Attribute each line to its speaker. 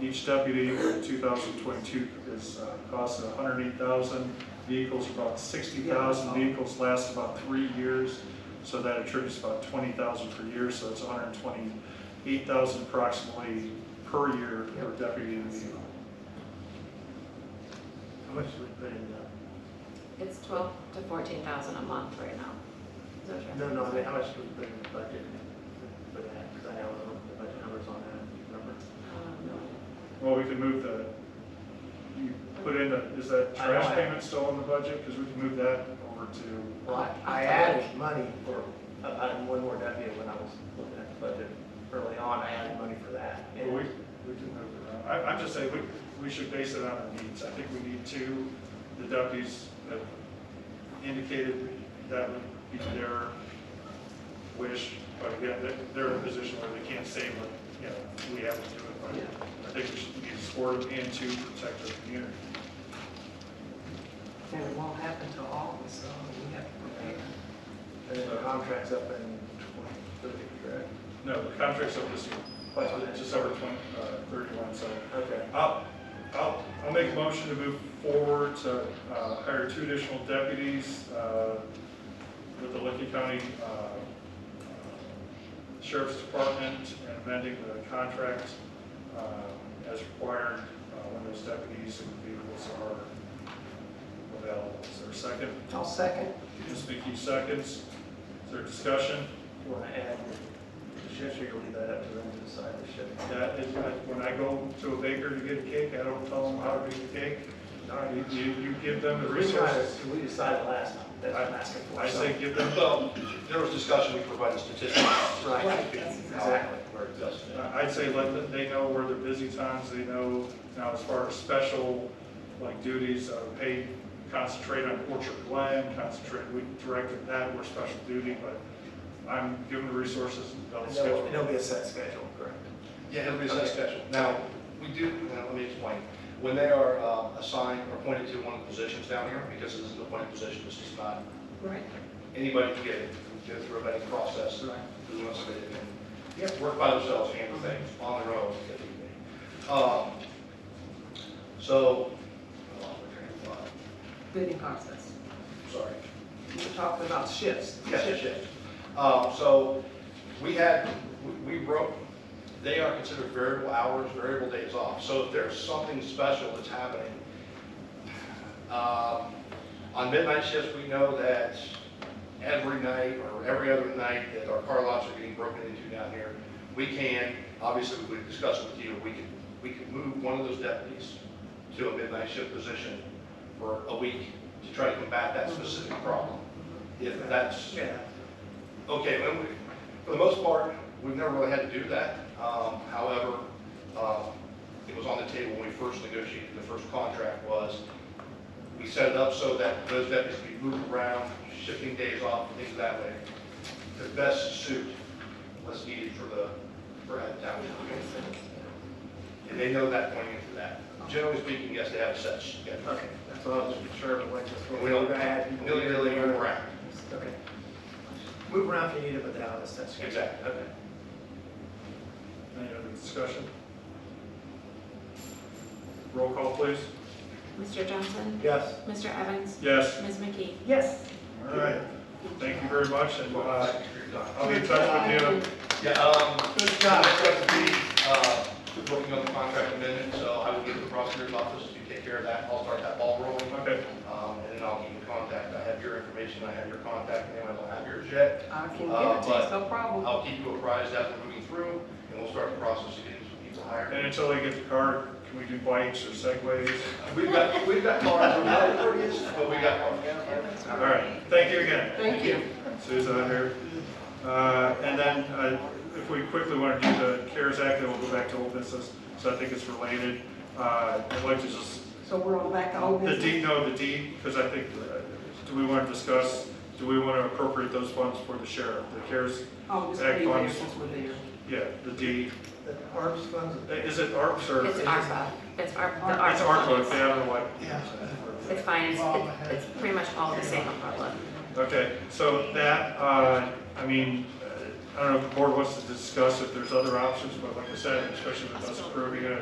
Speaker 1: each deputy for two thousand twenty-two is, uh, cost a hundred and eight thousand. Vehicles, about sixty thousand vehicles last about three years, so that attributes about twenty thousand per year, so it's hundred and twenty-eight thousand approximately per year per deputy in the vehicle.
Speaker 2: How much do we put in uh, the,
Speaker 3: It's twelve to fourteen thousand a month right now. Is that right?
Speaker 2: no,
Speaker 3: Uh,
Speaker 2: no, I mean, how much do we put in the budget for that? Because I don't know the budget numbers on that number.
Speaker 3: Um,
Speaker 1: Well, we can move the, you put in, a- is that
Speaker 2: I don't
Speaker 1: trash
Speaker 2: have-
Speaker 1: payment still in the budget? Because we can move that over to,
Speaker 2: Well, I- I added money for, uh, I added one more deputy when I was looking at the budget early on, I added money for that.
Speaker 1: well, we, we can move it around. I, I'm just saying, we, we should base it on our needs. I think we need two, the deputies have indicated that would be their wish, but again, they're, they're in a position where they can't say, but, you know, we have to do it. But I think we should need to support them and to protect the community.
Speaker 4: And it won't happen till August, so we have to prepare.
Speaker 2: And then the contract's up in twenty, thirty, correct?
Speaker 1: No, the contract's up this year, but just over twenty, uh, thirty-one, so.
Speaker 2: Okay.
Speaker 1: I'll, I'll, I'll make a motion to move forward to uh, hire two additional deputies uh, with the Lincoln County uh, uh, Sheriff's Department and amending the contract um, as required uh, when those deputies and vehicles are available. Is there a second?
Speaker 4: I'll second.
Speaker 1: Ms. McKee seconds. Is there discussion?
Speaker 2: You want to add the shifts or you'll leave that up to them to decide the shift?
Speaker 1: That is, I- when I go to a baker to get a cake, I don't tell them how to make a cake. You, you you give them the
Speaker 2: We
Speaker 1: resources.
Speaker 2: decided- We decided last, time. that's what I'm asking for.
Speaker 1: I say give them,
Speaker 5: Well, there was discussion, we provided statistics.
Speaker 2: Right,
Speaker 5: Exactly. Where it does.
Speaker 1: uh, I'd say let, them- they know where their busy times, they know, now as far as special, like duties, uh, paid, concentrate on Orchard Glen, concentrate, we directed that, we're special duty, but I'm giving the resources, and they'll
Speaker 2: And there'll,
Speaker 1: schedule.
Speaker 2: there'll be a set schedule, correct?
Speaker 5: Yeah, it'll be a set schedule. Now, we do, now, let me explain. When they are uh, assigned or appointed to one of the positions down here, because this is an appointed position, this is not,
Speaker 4: Right.
Speaker 5: anybody can get it, go through a vetting process.
Speaker 2: Right.
Speaker 5: Who wants to, and you have to work by themselves, handle things on their own. if need be. Um, So, oh, I lost my train of thought.
Speaker 4: Bidding process.
Speaker 5: sorry.
Speaker 4: We We're talking about shifts.
Speaker 5: Yes, yes, yes. Um, So we had, we- we wrote, they are considered variable hours, variable days off. So if there's something special that's happening, um, on midnight shifts, we know that every night or every other night that our car lots are getting broken into down here, we can, obviously, we discussed with you, we could, we could move one of those deputies to a midnight shift position for a week to try to combat that specific problem. If that's,
Speaker 2: Yeah.
Speaker 5: Okay, well, we- for the most part, we've never really had to do that. Um, However, um, it was on the table when we first negotiated, the first contract was, we set it up so that those deputies could be moved around, shifting days off, and things that way, to best suit what's needed for the, for that town. And they know that going into that. Generally speaking, yes, they have a set schedule.
Speaker 2: Okay, that's what I was sure, of, like, just. what
Speaker 5: We don't
Speaker 2: add people
Speaker 5: nilly-nilly
Speaker 2: here.
Speaker 5: move around.
Speaker 2: Okay. Move around if you need it, but they have a set schedule.
Speaker 5: Exactly.
Speaker 2: Okay.
Speaker 1: Any other discussion? Roll call, please.
Speaker 3: Mr. Johnson?
Speaker 2: Yes.
Speaker 3: Mr. Evans?
Speaker 1: Yes.
Speaker 3: Ms. McKee?
Speaker 2: Yes.
Speaker 1: All right. Thank you very much, and uh, I'll be in touch with you.
Speaker 5: Yeah, um,
Speaker 2: Good
Speaker 5: Scott,
Speaker 2: job.
Speaker 5: I've got to be, uh, working on the contract amendment, so I will give the prosecutor's office to take care of that. I'll start that ball rolling.
Speaker 1: Okay.
Speaker 5: Um, and then I'll keep in contact. I have your information, I have your contact name, I don't have yours yet.
Speaker 4: I can
Speaker 1: Uh,
Speaker 4: give it to you, it's no problem.
Speaker 5: I'll keep you apprised as we're moving through, and we'll start the process of getting some people
Speaker 1: And
Speaker 5: hired.
Speaker 1: until they get the car, can we do bikes or segways?
Speaker 5: We've got, we've got cars, we're not impervious, but we got cars.
Speaker 1: All right, thank you again.
Speaker 4: Thank you.
Speaker 1: Susan out here. Uh, And then, uh, if we quickly want to do the CARES Act, then we'll go back to old business, so I think it's related. Uh, I'd like to just,
Speaker 4: So we're on back to old
Speaker 1: the
Speaker 4: business.
Speaker 1: D, no, the D, because I think, uh, do we want to discuss, do we want to appropriate those funds for the sheriff? The CARES,
Speaker 4: Oh, just
Speaker 1: Act
Speaker 4: leave there
Speaker 1: funds.
Speaker 4: since we're there.
Speaker 1: yeah, the D.
Speaker 2: The ARPS funds,
Speaker 1: Is it ARPS or?
Speaker 3: It's ARPA. It's ARPA.
Speaker 1: It's ARPA, yeah, I don't know why.
Speaker 3: It's finance. It- It's pretty much all the same umbrella.
Speaker 1: Okay, so that, uh, I mean, uh, I don't know if the board wants to discuss if there's other options, but like I said, especially with us approving it,